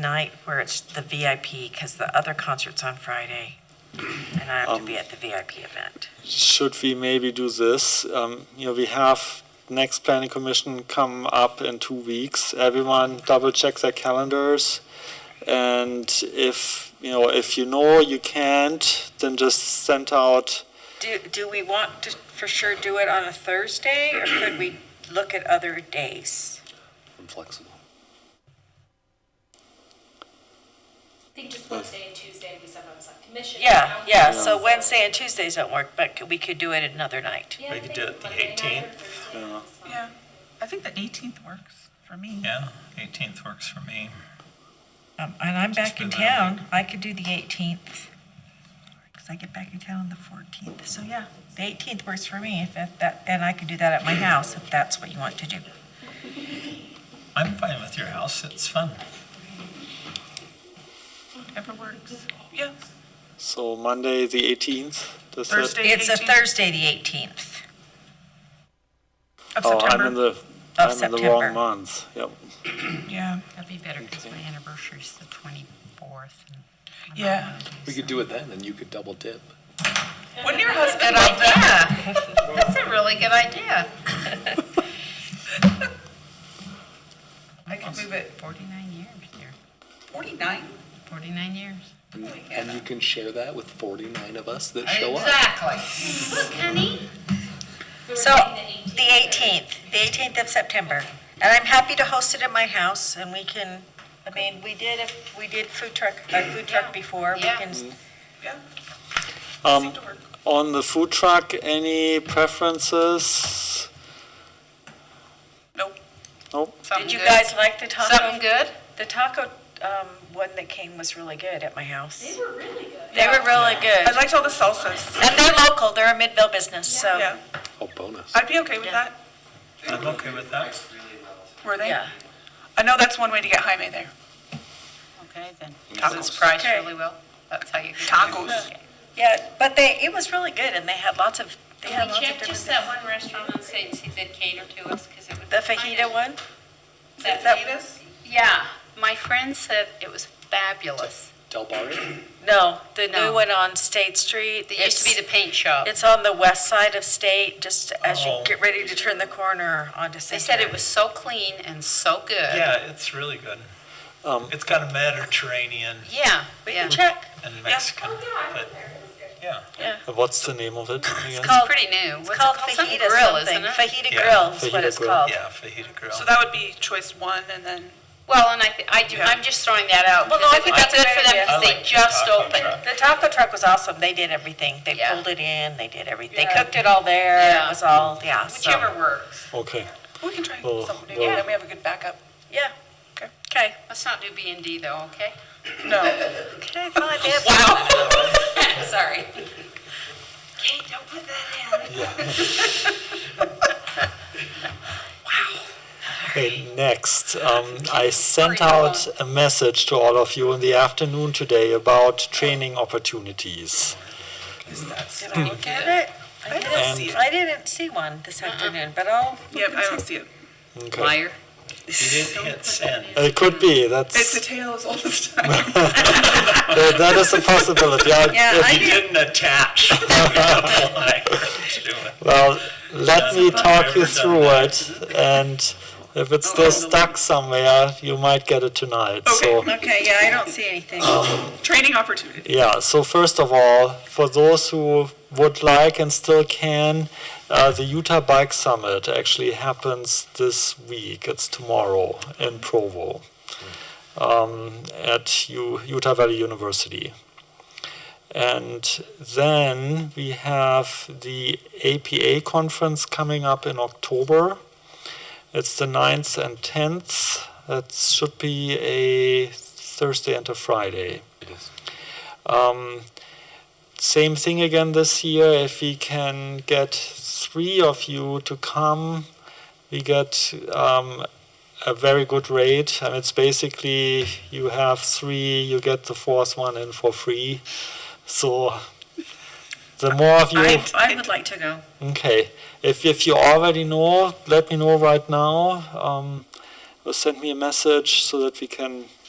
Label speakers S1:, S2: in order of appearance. S1: night where it's the VIP, because the other concert's on Friday, and I have to be
S2: Um.
S1: at the VIP event.
S3: Should we maybe do this? Um, you know, we have next planning commission come up in two weeks. Everyone double check their calendars. And if, you know, if you know you can't, then just send out,
S1: Do, do we want to for sure do it on a Thursday, or could we look at other days?
S4: I'm flexible.
S5: I think just Wednesday and Tuesday, we sometimes have commission.
S1: Yeah, yeah, so Wednesday and Tuesdays don't work, but we could do it another night.
S5: Yeah, I
S2: We
S5: think
S2: could do it the
S5: Monday night or
S2: 18th.
S5: Thursday night is fine.
S6: Yeah, I think the 18th works for me.
S2: Yeah, 18th works for me.
S6: Um, And I'm
S2: Just
S6: back in
S2: remind me.
S6: town. I could do the 18th. Because I get back in town on the 14th. So yeah, the 18th works for me. If that- that, and I could do that at my house if that's what you want to do.
S2: I'm fine with your house, it's fun.
S6: Whatever works. Yeah.
S3: so Monday, the 18th. Does that-
S6: Thursday, It's a Thursday, the 18th
S7: Of
S3: Oh, I'm in
S7: September.
S3: the,
S6: of
S3: I'm in the wrong
S6: September.
S3: month. Yep.
S7: Yeah,
S8: That'd be better because my anniversary's the 24th. and I'm not
S7: yeah.
S4: We could do it then, and you could double dip.
S7: Wouldn't your husband
S8: Good
S7: love that?
S8: idea. That's a really good idea.
S7: I could move it
S8: 49 years here,
S7: 49.
S8: 49 years.
S4: And you can share that with 49 of us that show up.
S8: Exactly. Look, honey.
S5: We were
S1: So,
S5: thinking
S1: the 18th, the 18th of September. And I'm happy to host it at my house, and we can, I mean, we did, a- we did food truck, a food truck before. We
S8: Yeah.
S1: can
S3: Um, on the food truck, any preferences?
S7: Nope.
S3: Nope.
S1: Did you guys like the taco?
S8: Something good?
S1: The taco um, one that came was really good at my house.
S5: They were really good.
S1: They were really
S7: I
S1: good.
S7: liked all the salsas.
S1: And they're local, they're a Midville business, so,
S7: Yeah,
S4: Oh, bonus.
S7: I'd be okay with that.
S2: I'm okay with that.
S7: Were they?
S1: yeah.
S7: I know that's one way to get Jaime there.
S8: Okay, then.
S7: Tacos.
S8: It's priced
S1: Okay.
S8: really well. That's how you. get it.
S7: Tacos.
S1: Yeah, but they, it was really good, and they had lots of, they had
S5: We
S1: lots of
S5: checked
S1: different
S5: just
S1: things.
S5: that one restaurant on State, see if they'd cater to us, because it was.
S1: The fajita one?
S5: That
S1: that-
S7: Fajitas?
S8: Yeah, my friend said it was fabulous.
S4: Del Barrio?
S1: No, the new
S8: No.
S1: one on State Street.
S8: It used to be the paint shop.
S1: It's on the west side of State, just as you
S2: Oh.
S1: get ready to turn the corner onto
S8: They
S1: State.
S8: said it was so clean and so good.
S2: Yeah, it's really good.
S3: Um,
S2: It's got a Mediterranean
S8: Yeah,
S1: We can
S8: yeah.
S1: check.
S2: and Mexican, but yeah.
S3: What's the name of it? again?
S8: It's pretty new. What's
S1: It's called
S8: Some
S1: fajita
S8: grill,
S1: something.
S8: isn't it?
S1: Fajita
S2: Yeah.
S1: Grill is what
S3: Fajita
S1: it's
S3: Grill.
S1: called.
S2: Yeah, fajita grill.
S7: So that would be choice one and then,
S8: Well, and I, th- I do,
S7: Yeah.
S8: I'm just throwing that out.
S1: Well, no,
S8: because
S1: I think
S8: it'd
S1: that's
S8: be
S1: a
S8: good
S1: great
S8: for them
S1: idea.
S2: I
S8: because they
S2: like the
S8: just
S2: taco
S8: opened.
S2: truck.
S1: The taco truck was awesome. They did everything. They
S8: Yeah.
S1: pulled it in. They did everything. They
S7: Yeah.
S1: cooked it all there. It
S8: Yeah.
S1: was all yeah. so-
S8: Whichever works.
S3: Okay.
S7: we can try
S3: Well,
S7: something new,
S3: well-
S7: then we have a good backup.
S1: Yeah.
S7: Okay.
S1: Okay.
S8: Let's not do B and D though, okay?
S7: No,
S1: Okay. Fine. They have-
S8: Wow. Sorry.
S5: Kate, don't put that in.
S3: Okay, next, um, I sent
S8: Hurry
S3: out a message to all of you in the afternoon today about training opportunities.
S1: Did I look at it?
S7: I don't see it.
S1: I Uh-uh. didn't see one this afternoon, but I'll.
S7: Yep, I don't see it.
S3: Okay.
S8: Liar.
S2: You didn't hit send.
S3: It could be,
S7: It's the
S3: that's,
S7: tails all the time.
S3: that that is a possibility. I-
S1: Yeah, I
S2: You
S1: did.
S2: didn't attach. You're a liar. Do it.
S3: Well, let me
S2: I've
S3: talk you
S2: never done
S3: through it, and if it's still stuck somewhere, you might get it tonight, so.
S1: Okay. Yeah, I don't see anything.
S7: Training opportunity.
S3: Yeah, so first of all, for those who would like and still can, uh, the Utah Bike Summit actually happens this week. It's tomorrow in Provo um, at U- Utah Valley University. And then we have the APA conference coming up in October. It's the 9th and 10th. That should be a Thursday and a Friday.
S4: It is.
S3: Um, same thing again this year. If we can get three of you to come, we get um, a very good rate. And it's basically you have three, you get the fourth one in for free. So the more of you.
S1: I, I would like to go.
S3: Okay, if, if you already know, let me know right now. Um, or send me a message so that we can